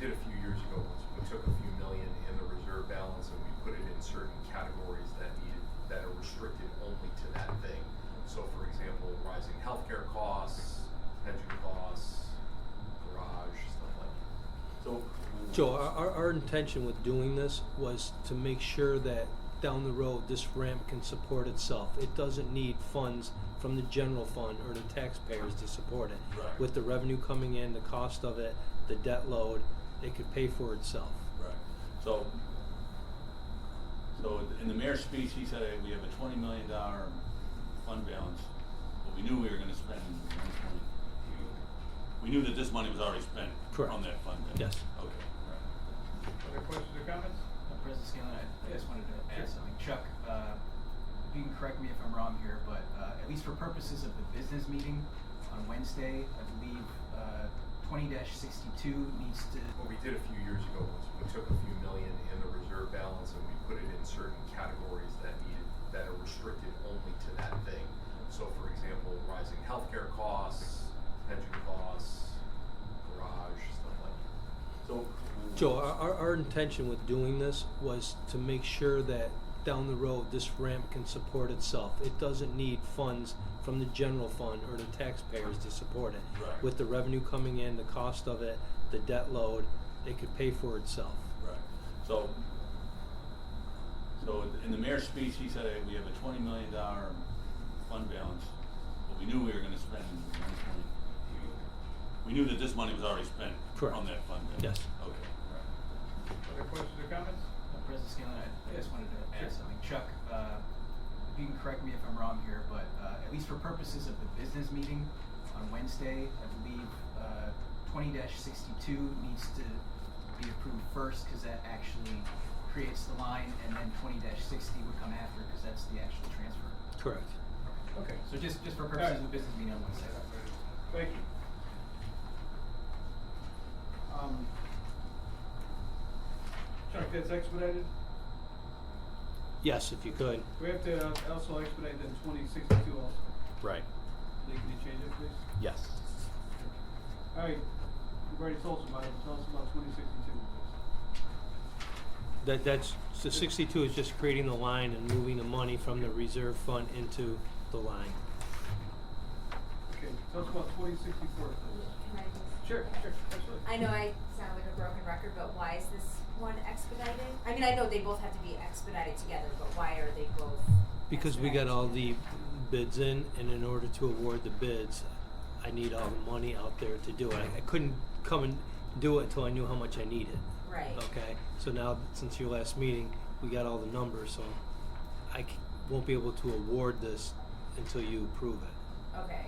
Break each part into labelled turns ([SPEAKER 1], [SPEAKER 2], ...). [SPEAKER 1] did a few years ago was we took a few million in the reserve balance and we put it in certain categories that needed, that are restricted only to that thing. So for example, rising healthcare costs, pension costs, garage, stuff like that.
[SPEAKER 2] So.
[SPEAKER 3] Joe, our, our, our intention with doing this was to make sure that down the road, this ramp can support itself. It doesn't need funds from the general fund or the taxpayers to support it.
[SPEAKER 2] Right.
[SPEAKER 3] With the revenue coming in, the cost of it, the debt load, it could pay for itself.
[SPEAKER 2] Right, so, so in the mayor's speech, he said, "Hey, we have a twenty million dollar fund balance, but we knew we were gonna spend one point. We knew that this money was already spent
[SPEAKER 3] Correct.
[SPEAKER 2] on that fund balance.
[SPEAKER 3] Yes.
[SPEAKER 2] Okay, right.
[SPEAKER 4] Other questions or comments?
[SPEAKER 5] Uh, President Scanlon, I I just wanted to add something. Chuck, uh, you can correct me if I'm wrong here, but uh, at least for purposes of the business meeting on Wednesday, I believe uh, twenty sixty-two needs to,
[SPEAKER 1] What we did a few years ago was we took a few million in the reserve balance and we put it in certain categories that needed, that are restricted only to that thing. So for example, rising healthcare costs, pension costs, garage, stuff like that.
[SPEAKER 2] So.
[SPEAKER 3] Joe, our, our, our intention with doing this was to make sure that down the road, this ramp can support itself. It doesn't need funds from the general fund or the taxpayers to support it.
[SPEAKER 2] Right.
[SPEAKER 3] With the revenue coming in, the cost of it, the debt load, it could pay for itself.
[SPEAKER 2] Right, so, so in the mayor's speech, he said, "Hey, we have a twenty million dollar fund balance, but we knew we were gonna spend one point. We knew that this money was already spent
[SPEAKER 3] Correct.
[SPEAKER 2] on that fund balance.
[SPEAKER 3] Yes.
[SPEAKER 2] Okay, right.
[SPEAKER 4] Other questions or comments?
[SPEAKER 5] uh, President Scanlon, I I just wanted to
[SPEAKER 4] Sure.
[SPEAKER 5] add something. Chuck, uh, you can correct me if I'm wrong here, but uh, at least for purposes of the business meeting on Wednesday, I believe uh, twenty sixty-two needs to be approved first because that actually creates the line, and then twenty sixty would come after because that's the actual transfer.
[SPEAKER 3] Correct.
[SPEAKER 4] Okay.
[SPEAKER 5] So just, just for purposes of the business meeting on Wednesday.
[SPEAKER 4] Thank you. Um, Chuck, that's expedited?
[SPEAKER 3] Yes, if you could.
[SPEAKER 4] We have to uh, also expedite then twenty sixty-two also.
[SPEAKER 6] Right.
[SPEAKER 4] Lee, can you change it, please?
[SPEAKER 6] Yes.
[SPEAKER 4] All right, you've already told us about it, tell us about twenty sixty-two, please.
[SPEAKER 3] That, that's, so sixty-two is just creating the line and moving the money from the reserve fund into the line.
[SPEAKER 4] Okay, tell us about twenty sixty-four, please.
[SPEAKER 7] Can I just-
[SPEAKER 4] Sure, sure, absolutely.
[SPEAKER 7] I know I sound like a broken record, but why is this one expedited? I mean, I know they both have to be expedited together, but why are they both?
[SPEAKER 3] Because we got
[SPEAKER 7] expedited
[SPEAKER 3] all the
[SPEAKER 7] together?
[SPEAKER 3] bids in, and in order to award the bids, I need all the money out there to do it. I- I couldn't come and do it until I knew how much I needed.
[SPEAKER 7] Right.
[SPEAKER 3] Okay, so now, since your last meeting, we got all the numbers, so I c- won't be able to award this until you approve it.
[SPEAKER 7] Okay,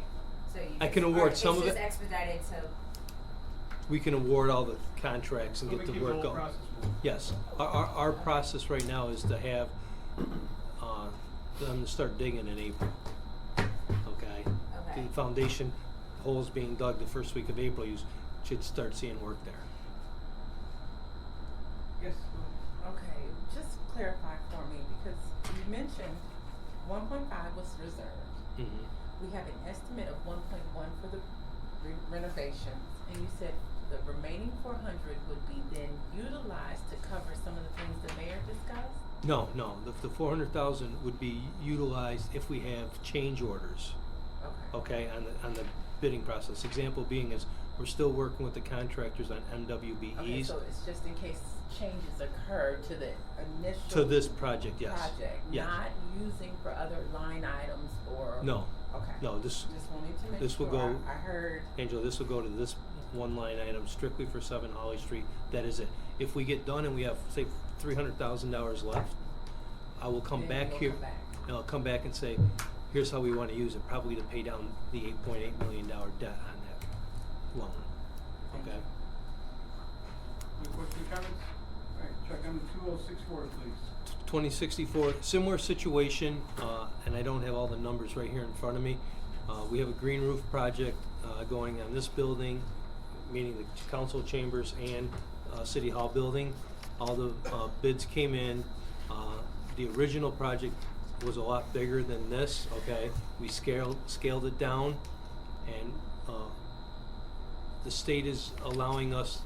[SPEAKER 7] so you.
[SPEAKER 3] I
[SPEAKER 7] just-
[SPEAKER 3] can
[SPEAKER 7] or
[SPEAKER 3] award some of
[SPEAKER 7] It's
[SPEAKER 3] it.
[SPEAKER 7] just expedited to,
[SPEAKER 3] We can award all the contracts and
[SPEAKER 4] So
[SPEAKER 3] get
[SPEAKER 4] we
[SPEAKER 3] the
[SPEAKER 4] keep
[SPEAKER 3] work going.
[SPEAKER 4] whole process moving.
[SPEAKER 3] Yes, our, our, our process right now is to have, uh, them to start digging in April, okay?
[SPEAKER 7] Okay.
[SPEAKER 3] The foundation holes being dug the first week of April, you s- should start seeing work there.
[SPEAKER 4] Yes, go
[SPEAKER 8] Okay, just clarify for me, because you mentioned one point five was reserved.
[SPEAKER 3] Mhm.
[SPEAKER 8] We have an estimate of one point one for the re- renovations, and you said the remaining four hundred would be then utilized to cover some of the things the mayor discussed?
[SPEAKER 3] No, no, the, the four hundred thousand would be utilized if we have change orders.
[SPEAKER 8] Okay.
[SPEAKER 3] okay, on the, on the bidding process. Example being is, we're still working with the contractors on
[SPEAKER 8] Okay,
[SPEAKER 3] MWBEs
[SPEAKER 8] so it's just in case changes occur to the initial.
[SPEAKER 3] to this project, yes.
[SPEAKER 8] Project,
[SPEAKER 3] Yes.
[SPEAKER 8] not using for other line items or.
[SPEAKER 3] No,
[SPEAKER 8] Okay.
[SPEAKER 3] no, this,
[SPEAKER 8] Just wanted to make sure.
[SPEAKER 3] this will go-
[SPEAKER 8] I I heard.
[SPEAKER 3] Angela, this will go to this one line item strictly for seven Holly Street, that is it. If we get done and we have, say, three hundred thousand dollars left, I will come
[SPEAKER 8] Then
[SPEAKER 3] back
[SPEAKER 8] we'll
[SPEAKER 3] here.
[SPEAKER 8] come back.
[SPEAKER 3] And I'll come back and say, here's how we wanna use it, probably to pay down the eight point eight million dollar debt on that loan,
[SPEAKER 8] Thank
[SPEAKER 3] okay?
[SPEAKER 8] you.
[SPEAKER 4] Any questions or comments? All right, Chuck, I'm two oh six four, please.
[SPEAKER 3] 2064, similar situation, uh, and I don't have all the numbers right here in front of me. Uh, We have a green roof project uh, going on this building, meaning the council chambers and uh, city hall building. All the uh, bids came in. Uh, The original project was a lot bigger than this, okay? We scaled, scaled it down, and uh, the state is allowing us